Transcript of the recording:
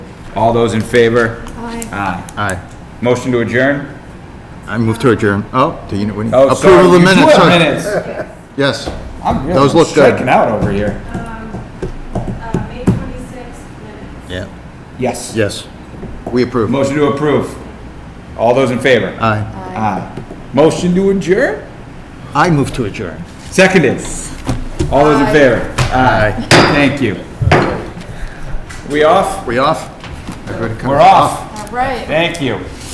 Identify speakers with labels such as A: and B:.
A: All those in favor?
B: Aye.
A: Aye.
C: Aye.
A: Motion to adjourn?
C: I move to adjourn. Oh, do you know, what do you-
A: Oh, sorry,
C: approval of the
A: you do
C: minutes.
A: have
C: sorry.
A: minutes.
C: Yes.
A: I'm
C: Those
A: really
C: look good.
A: striking out over here.
B: Uh, May twenty-sixth minutes.
C: Yeah.
A: Yes.
C: Yes. We approve.
A: Motion to approve. All those in favor?
C: Aye.
A: Aye. Motion to adjourn?
C: I move to adjourn.
A: Seconded. All those in
B: Aye.
A: favor?
C: Aye.
A: Thank you. We off?
C: We off? Everybody come-
A: We're off.
B: All right.
A: Thank you.